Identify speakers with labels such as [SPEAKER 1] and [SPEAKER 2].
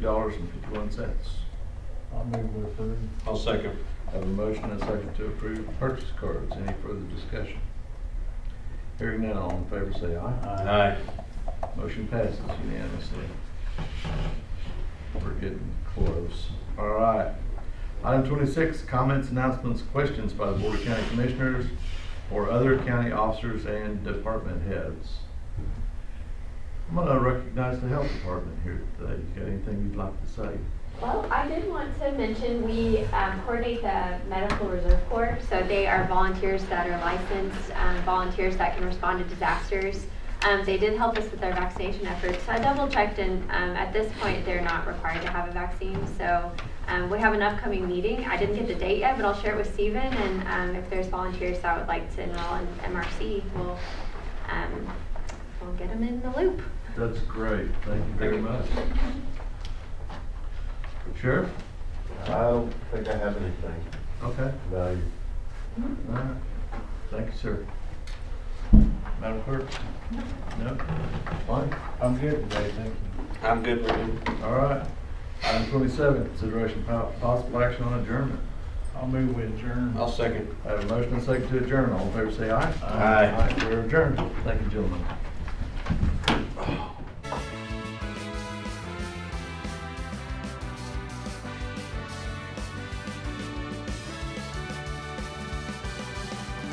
[SPEAKER 1] dollars and fifty-one cents.
[SPEAKER 2] I'll move to approve.
[SPEAKER 3] I'll second.
[SPEAKER 1] Have a motion and a second to approve purchase cards. Any further discussion? Hearing none, all in favor say aye.
[SPEAKER 3] Aye.
[SPEAKER 1] Motion passes unanimously. We're getting close. All right. Item twenty-six, comments, announcements, questions by the Board of County Commissioners or other county officers and department heads. I'm gonna recognize the health department here today. You got anything you'd like to say?
[SPEAKER 4] Well, I did want to mention, we um, coordinate the Medical Reserve Corps, so they are volunteers that are licensed, um, volunteers that can respond to disasters. Um, They did help us with our vaccination efforts, so I double checked, and um, at this point, they're not required to have a vaccine, so um, we have an upcoming meeting. I didn't get the date yet, but I'll share it with Steven, and um, if there's volunteers that would like to enroll in MRC, we'll, um, we'll get them in the loop.
[SPEAKER 1] That's great, thank you very
[SPEAKER 3] Thank you.
[SPEAKER 1] much. Sheriff?
[SPEAKER 5] I don't think I have anything
[SPEAKER 1] Okay,
[SPEAKER 5] of value.
[SPEAKER 1] all right, thank you, sir. Madam Clerk? No? Fine,
[SPEAKER 2] I'm good today, thank you.
[SPEAKER 3] I'm good with him.
[SPEAKER 1] all right. Item twenty-seven, consideration po- possible action on adjournment.
[SPEAKER 2] I'll move with adjourn.
[SPEAKER 3] I'll second.
[SPEAKER 1] I have a motion and second to adjourn, all in favor say aye.
[SPEAKER 3] Aye.
[SPEAKER 1] Aye, we're adjourned, thank you, gentlemen.